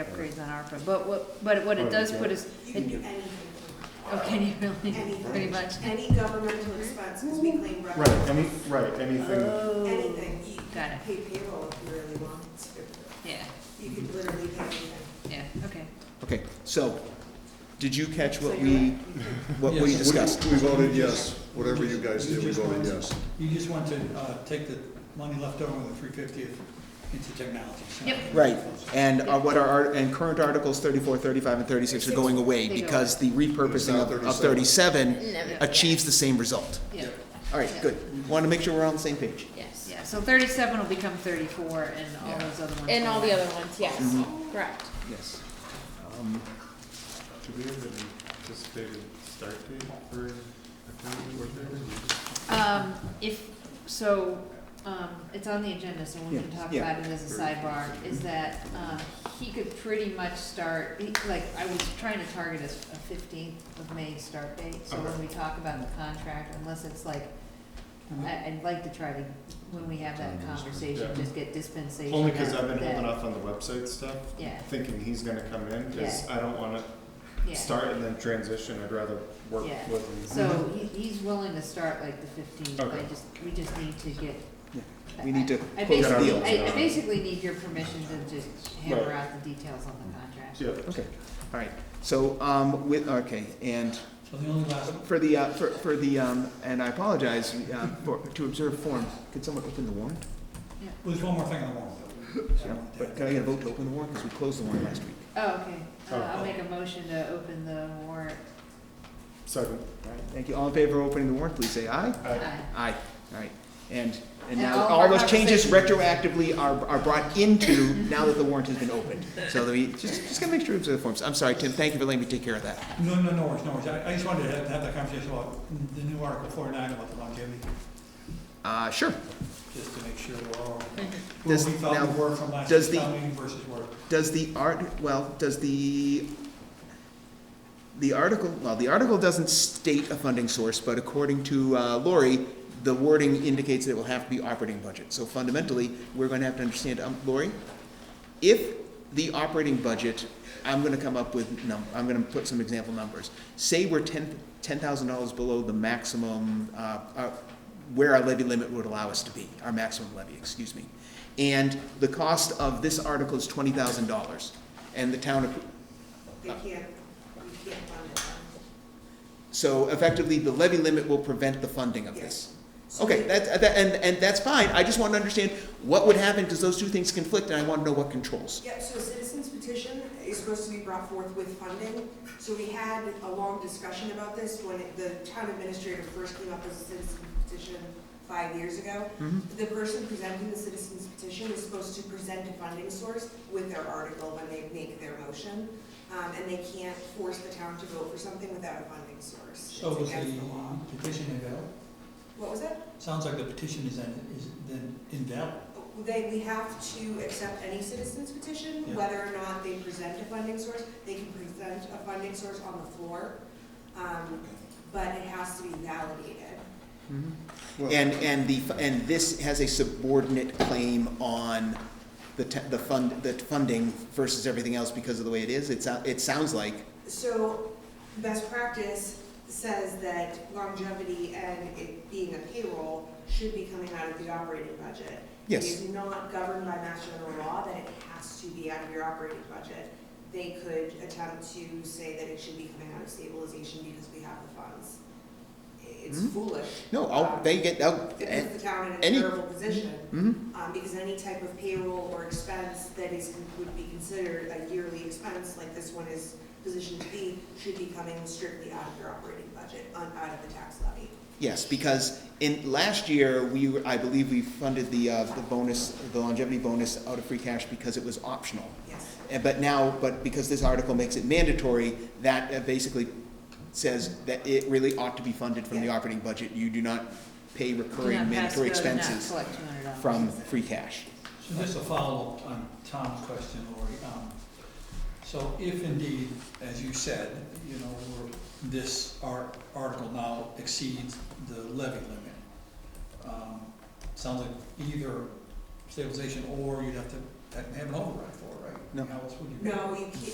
upgrades on ARPA, but what, but what it does put is, You can it- do anything, okay, you really, anything. pretty much. Any governmental expense, because we claim Right, revenue. any, right, anything, Oh, Anything, you Got can it. pay payroll if you really want, It's- Yeah, you could literally pay anything. yeah, okay. Okay, so, did you catch So what you're we, right. what we discussed? We voted yes, whatever you guys did, we voted yes. You just want to uh, take the money left over with the three fiftieth into technology. so- Yep. Right, and uh, what are, our- and current articles thirty-four, thirty-five, and thirty-six are going away They go because the repurposing of, of thirty-seven Never. achieves the same result. Yeah, All right, good, want to make sure we're on the same page. Yes. yeah, so thirty-seven will become thirty-four and all those other ones. And will all the not. other ones, yes, Mhm. correct. Yes. do we have an anticipated start date for accounting work Um, if, so, um, it's on the agenda, so we can Yeah, talk yeah. Mm-hmm. about it as a sidebar, is that, um, he could pretty much start, he- like, I was trying to target a fifteenth of May start date, so when we talk about the contract, unless it's like, Uh-huh. I, I'd like to try to, when we have that conversation, Yeah. just get dispensation. Only because out I've of been that. holding off on the website stuff, Yeah. thinking he's gonna come in, because I don't wanna Yeah. start and then transition, I'd rather work Yeah. with him. So Mm-hmm. he, he's willing to start like the fifteenth, I Okay. just, we just need to get. Yeah. I- We need to I- I close the basically- deal. I, I basically need your permission to just hammer Right. out the details on the contract. Yeah, Okay, all right, so, um, with, okay, and So the only last, for the, uh, for, for the, um, and I apologize, uh, for, to observe form, could someone open the warrant? well, there's one more thing on the warrant. Yeah, But can I get a vote to open the warrant, because we closed the warrant last week. Oh, okay, Uh, Oh, I'll oh. make a motion to open the warrant. second. All right, thank you, all in favor of opening the warrant, please say aye. I- Aye. Aye, all right, and, and And now, all of all our those changes conversations. retroactively are, are brought into, now that the warrant has been opened. So that we, just, just gotta make sure it's the forms, I'm sorry, Tim, thank you for letting me take care of that. No, no, no worries, no worries. I, I just wanted to have, have that conversation about the new Article forty-nine about the longevity, Uh, sure, just to make sure we're all, where we Does- now, thought we were from last does the- town meeting versus where. does the art, well, does the, the article, well, the article doesn't state a funding source, but according to uh, Lori, the wording indicates that it will have to be operating budget. So fundamentally, we're gonna have to understand, um, Lori, if the operating budget, I'm gonna come up with num, I'm gonna put some example numbers. Say we're ten, ten thousand dollars below the maximum, uh, uh, where our levy limit would allow us to be, our maximum levy, excuse me. And the cost of this article is twenty thousand dollars, and the town, appro- They can't, you can't fund it. so effectively, the levy limit will prevent the funding of this. So Okay, we- that, that, and, and that's fine, I just want to understand what would happen, because those two things conflict, and I want to know what controls. Yep, so a citizens petition is supposed to be brought forth with funding. So we had a long discussion about this when it- the town administrator first came up with a citizen petition five years ago. Mhm. The person presenting the citizen's petition is supposed to present a funding source with their article when they make their motion. Um, and they can't force the town to vote for something without a funding source. So It's was against the law. the petition invalid? What was that? Oh, Sounds like the petition is then, is then invalid. They, we have to accept any citizen's petition, Yeah. whether or not they present a funding source. They can present a funding source on the floor, um, but it has to be validated. Well, And, and the, and this has a subordinate claim on the, te- the fund, the funding versus everything else because of the way it is, it sounds, it sounds like, So best practice says that longevity and it being a payroll should be coming out of the operating budget. Yes. It is not governed by mass general law that it has to be out of your operating budget. They could attempt to say that it should be coming out of stabilization because we have the funds. It's Hmm. foolish. no, I'll, they get, I'll, It puts the town in any- a terrible position. mhm. Um, because any type of payroll or expense that is, would be considered a yearly expense, like this one is positioned to be, should be coming strictly out of your operating budget, on, out of the tax levy. Yes, because in, last year, we, were- I believe we funded the, uh, the bonus, the longevity bonus out of free cash because it was optional. Yes. And, but now, but because this article makes it mandatory, that uh, basically says that it really ought to be funded from the Yeah. operating budget. You do not pay Do not recurring pass mandatory go, do not expenses collect $200. from free cash. So just a follow-up on Tom's question, Lori. Um, So if indeed, as you said, you know, we're- this ar- article now exceeds the levy limit, um, sounds like either stabilization or you'd have to have an override for, right? No. How else would you? No, you can't,